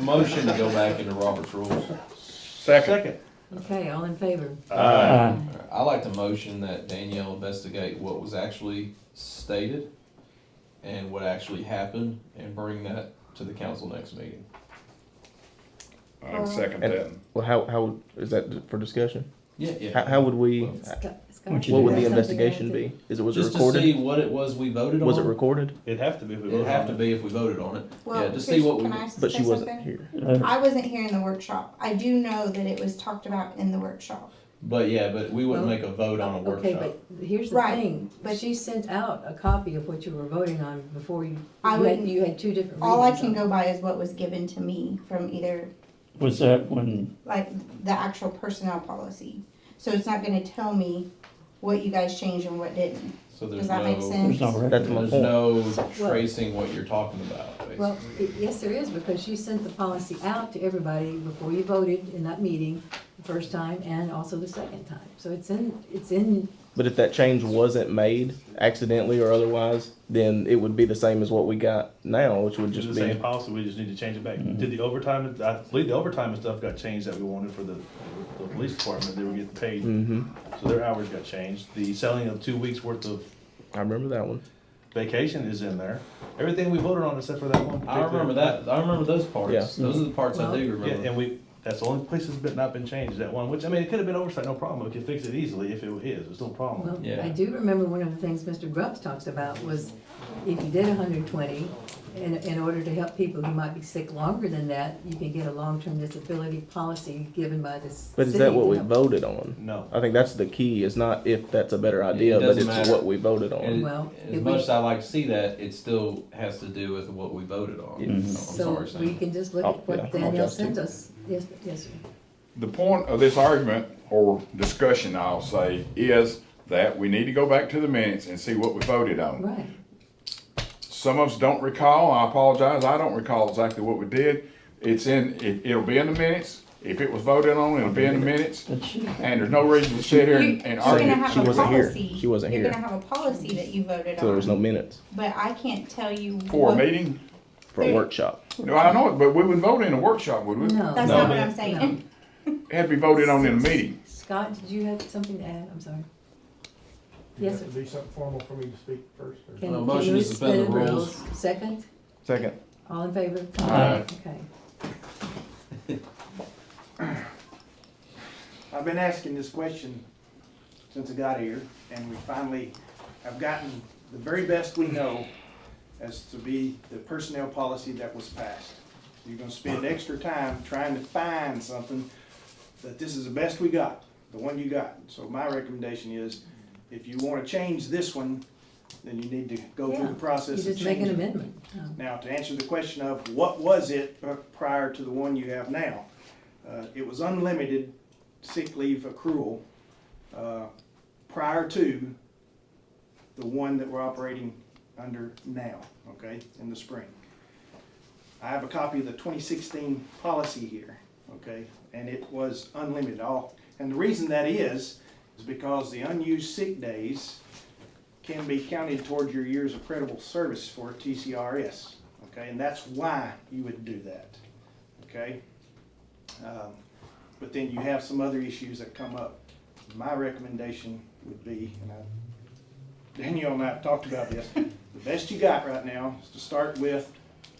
Motion to go back into Robert's rules. Second. Okay, all in favor? Aye. I like to motion that Danielle investigate what was actually stated and what actually happened and bring that to the council next meeting. Uh-huh. I second And- that. Well, how, how, is that for discussion? Yeah, yeah. How, how would we, Scott- Scott, What you what would there's the do? something investigation else be? Is it, was it Just to see recorded? what it was we voted on. Was it recorded? It'd have to be. if we It'd voted have on to it. be if we voted on it. Well, Yeah, just see what we- Trish, can I say But she wasn't something? here. Uh, I wasn't here in the workshop. I do know that it was talked about in the workshop. But yeah, but we wouldn't Well, make a vote on a Okay, workshop. but here's the Right, thing, but- she sent out a copy of what you were voting on before you, I you had, wouldn't- you had two different readings. All I can on it. go by is what was given to me from either, Was that when, like, the actual personnel policy. So it's not gonna tell me what you guys changed and what didn't. So there's Does that make no, sense? there's no That's record? my there's point. no tracing what you're talking about, Well, basically. i- yes, there is, because you sent the policy out to everybody before you voted in that meeting, the first time and also the second time. So it's in, it's in, But if that change wasn't made accidentally or otherwise, then it would be the same as what we got now, which would It's the just be. same policy, we just need to change it back. Mm-hmm. Did the overtime, I believe the overtime and stuff got changed that we wanted for the, the police department, they were getting Mm. paid. Mm-hmm. So their hours got changed. The selling of two weeks worth of I remember that one. vacation is in there. Everything we voted on except for that one. I remember that, I remember those parts. Yeah. Those are the parts I do particular- Yeah, remember. and we, that's the only place that's been, not been changed, that one, which, I mean, it could have been oversight, no problem. We could fix it easily if it is, it's no problem. well, Yeah. I do remember one of the things Mr. Grubbs talks about was if you did hundred and twenty, in, in order to help people who might be sick longer than that, you can get a long-term disability policy given by this. But is city that what to we help- voted on? No. I think that's the key, is not if that's a better idea, it but doesn't it's matter. what we voted on. And Well, as it much would- as I like to see that, it still has to do with what we voted on. I'm So sorry, we Sam. can just look Oh, at yeah, what I'll Danielle adjust it. sent us. Yes, yes, sir. The point of this argument or discussion, I'll say, is that we need to go back to the minutes and see what we voted on. right. Some of us don't recall, I apologize, I don't recall exactly what we did. It's in, it, it'll be in the minutes. If it was voted on, it'll be in the minutes. But she- And there's no reason to sit here and and You're argue. gonna have she a wasn't here. policy- She wasn't You're here. gonna have a policy that you voted So there was no on, minutes but I can't tell you. For a what- meeting? for a workshop. No, I know it, but we wouldn't vote in a workshop, would we? No. That's No. not what I'm saying. It Had to be voted on in a meeting. Scott, did you have something to add? I'm sorry. Yes, sir. Does it have to be something formal for me to speak first? or- Can- Uh, can motion you to suspend the Second, Second. all in favor? Aye. Okay. I've been asking this question since I got here, and we finally have gotten the very best we know as to be the personnel policy that was passed. You're gonna spend extra time trying to find something that this is the best we got, the one you got. So my recommendation is, if you wanna change this one, then you need to go through Yeah, the You process and just make change an it. amendment. Um, Now, to answer the question of what was it uh, prior to the one you have now, uh, it was unlimited sick leave accrual uh, prior to the one that we're operating under now, okay, in the spring. I have a copy of the 2016 policy here, okay, and it was unlimited all. And the reason that is, is because the unused sick days can be counted towards your years of credible service for TCRS, okay? And that's why you would do that, okay? Um, But then you have some other issues that come up. My recommendation would be, and I, Danielle and I have talked about this, the best you got right now is to start with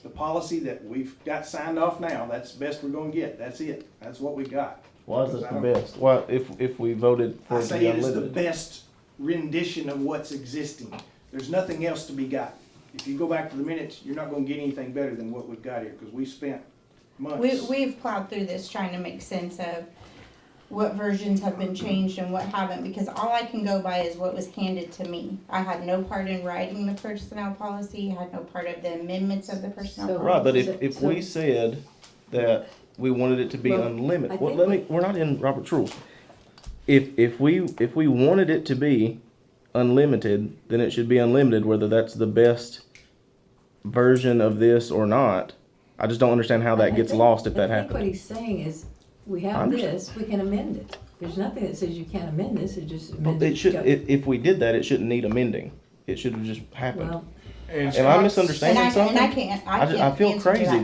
the policy that we've got signed off now. That's the best we're gonna get. That's it. That's what we got. Why is that the best? Why, if, if we voted for I it to say be it is the unlimited? best rendition of what's existing. There's nothing else to be got. If you go back to the minutes, you're not gonna get anything better than what we've got here, because we spent We, months. we've plowed through this trying to make sense of what versions have been changed and what haven't, because all I can go by is what was handed to me. I had no part in writing the personnel policy, I had no part of the amendments of the personnel. So- policy. Right, but if, if So- we said that we wanted it to be Well, I unlimited, well, think let we- me, we're not in Robert's rules. If, if we, if we wanted it to be unlimited, then it should be unlimited, whether that's the best version of this or not. I just don't understand how I that gets think- lost if I that think What happens. he's saying is, we I have understand. this, we can amend it. There's nothing that says you can't amend this, it just But amends. it should, itself. if, if we did that, it shouldn't need amending. It should have just happened. Well, Am I Scott's- misunderstanding And I, something? and I can't, I I ju- I can't feel answer to crazy that.